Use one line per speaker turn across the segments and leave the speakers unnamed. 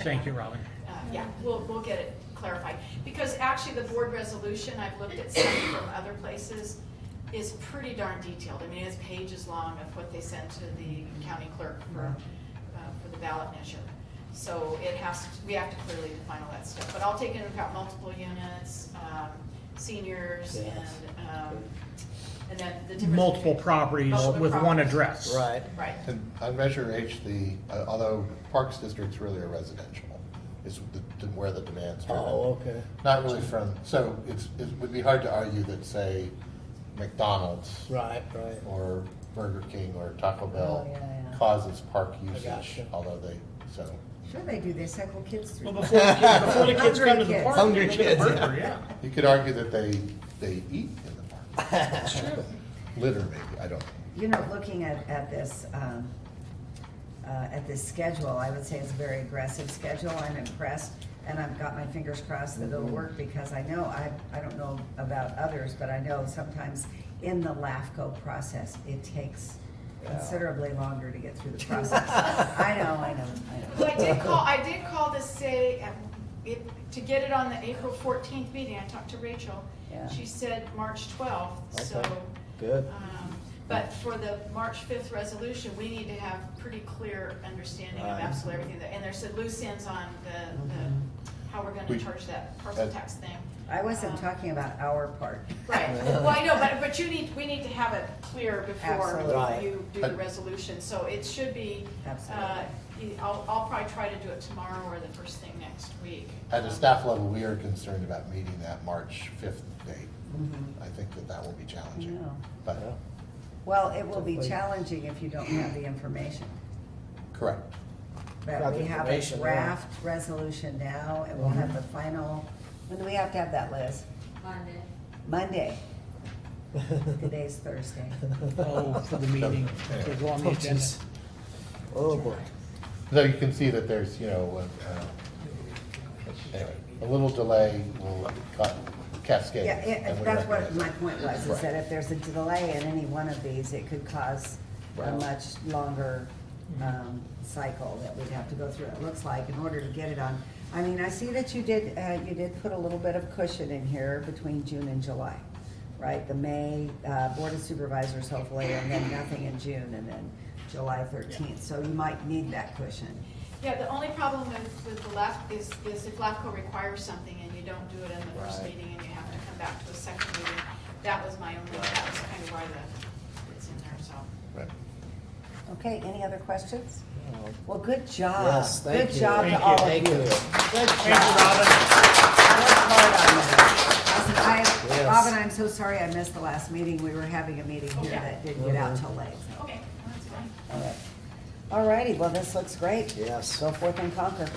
Thank you, Robin.
Uh, Yeah, we'll, we'll get it clarified, because actually the board resolution, I've looked at some from other places, is pretty darn detailed, I mean, it's pages long of what they sent to the county clerk for, uh, for the ballot measure. So it has, to- we have to clearly define all that stuff, but I'll take into account multiple units, um, seniors and,
Yes.
um, and then the difference.
Multiple
between-
properties
Multiple
with one
properties.
address.
Right.
Right,
And on Measure H, the, uh, although Parks District's really a residential, is the- where the demand's driven.
Oh, okay.
Not really from, so it's, it would be hard to argue that, say, McDonald's
Right, right.
or Burger King or Taco
Oh, yeah,
Bell
yeah.
causes park usage,
gotcha.
although they, so.
Sure they do, they cycle kids
Well,
through.
before, the kids- before the kids come to the
Hungry
park.
Hungry
they get a
kids, yeah.
burger, yeah.
You could argue that they, they eat in the park. Literally, I don't,
You know, looking at, at this, um, uh, at this schedule, I would say it's a very aggressive schedule. I'm impressed and I've got my fingers crossed that it'll work because I know, I, I don't know about others, but I know sometimes in the LAFCO process, it takes considerably longer to get through the process. I know, I know, I know.
Well, I did call, I did call to say, um, it, to get it on the April fourteenth meeting, I talked to Rachel.
Yeah.
She said March twelfth, so.
Okay, good.
um, But for the March fifth resolution, we need to have pretty clear understanding of
Right.
absolutely everything that, and there's some loose ends on the, the, how we're gonna
We-
charge that parcel
that-
tax thing.
I wasn't
Um,
talking about our part.
Right, well, I know, but, but you need, we need to have it clear
Absolutely.
before
Right.
you do the resolution, so it should be, uh, I'll, I'll probably try to do it tomorrow or the first thing next week. Um,
at a staff level, we are concerned about meeting that March 5th date.
Mm-hmm.
I think that that will be challenging.
know.
Oh,
But,
Well, it will be
Hopefully.
challenging if you don't have the information.
correct.
But
Got
we
the
have a
information, yeah.
draft Mhm. resolution now, and we'll have the final, when do we have to have that, Liz?
Monday.
Monday. Today's Thursday.
Oh, for the meeting, to go on the
Oh,
agenda.
jeez. Oh, boy.
So you can see that there's, you know, uh, anyway, a little delay will ca- cascade.
Yeah,
and
it-
we
that's what
recognize
my
that.
point was, is that if there's a delay in any one of these, it could cause a
Right.
much longer um, cycle that we'd have to go through, it looks like, in order to get it on. I mean, I see that you did, uh, you did put a little bit of cushion in here between June and July, right? The May uh, Board of Supervisors hopefully, and then nothing in June, and then July 13th. So you might need that cushion.
Yeah, the only problem with, with the LAF is, is if LAFCO requires something and you don't do it in the first
Right.
meeting and you have to come back to a second meeting, that was my only, that was kind of why the, it's in there, so.
Right.
Okay, any other questions?
Oh,
Well, good job.
Yes, thank
Ah, Good
you.
job
Thank
to
you.
all of
Thank
you.
you.
Good
Thank you,
job.
Robin.
I worked hard on that. I said, I-
Yes.
Robin, I'm so sorry I missed the last meeting. We were having a meeting here
Okay.
that didn't get out till late.
Okay, that's fine.
All right. All righty, well, this looks great.
Yes.
Go forth and conquer.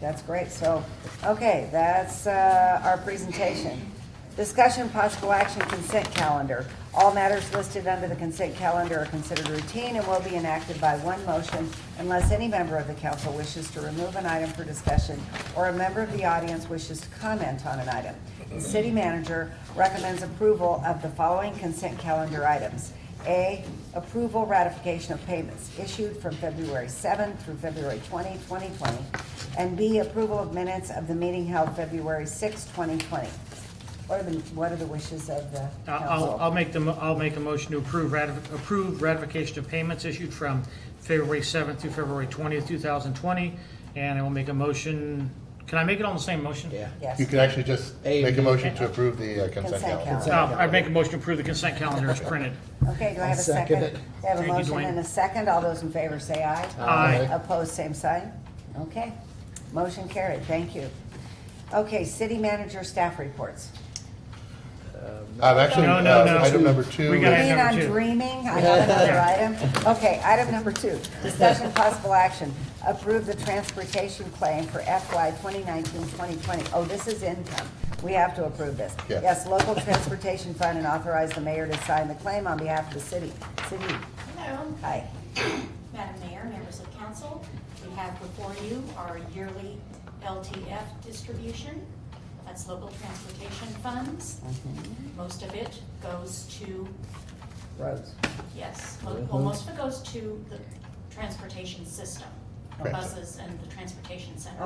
That's great. So, okay, that's uh, our presentation. Discussion possible action consent calendar. All matters listed under the consent calendar are considered routine and will be enacted by one motion unless any member of the council wishes to remove an item for discussion or a member of the audience wishes to comment on an item. The city manager recommends approval of the following consent calendar items. A, approval ratification of payments issued from February 7 through February 20, 2020. And B, approval of minutes of the meeting held February 6, 2020. What are the, what are the wishes of the
I- Uh, I'll, I'll
council?
make the, mo- I'll make a motion to approve, ratif- approve ratification of payments issued from February 7th through February 20th, 2020. And I will make a motion, can I make it all in the same motion?
Yeah.
Yes.
You could actually just
A,
make
B,
a motion to approve the uh,
Consent
consent
calendar.
calendar.
Uh, I'd make a motion to approve the consent calendar as printed.
Okay, do I have a
I'll second
second?
it.
We have a
Thank you,
motion
Dwayne.
and a second. All those in favor say aye.
Aye.
Opposed, same sign. Okay. Motion carried. Thank you. Okay, city manager staff reports.
Um, Actually,
No, no, no.
uh, item number two.
We gotta have-
is-
mean
number
I'm
two.
dreaming? I have another item. Okay, item number two, discussion possible action. Approve the transportation claim for FY 2019-2020. Oh, this is income. We have to approve this.
Yeah.
Yes, local transportation fund and authorize the mayor to sign the claim on behalf of the city. City,
Hello,
hi.
Madam Mayor, members of council. We have before you our yearly LTF distribution. That's local transportation funds.
Mm-hmm.
Most of it goes to,
Rhodes.
yes, mo-
Mm-hmm.
well, most of it goes to the transportation system,
Right.
buses and the transportation center.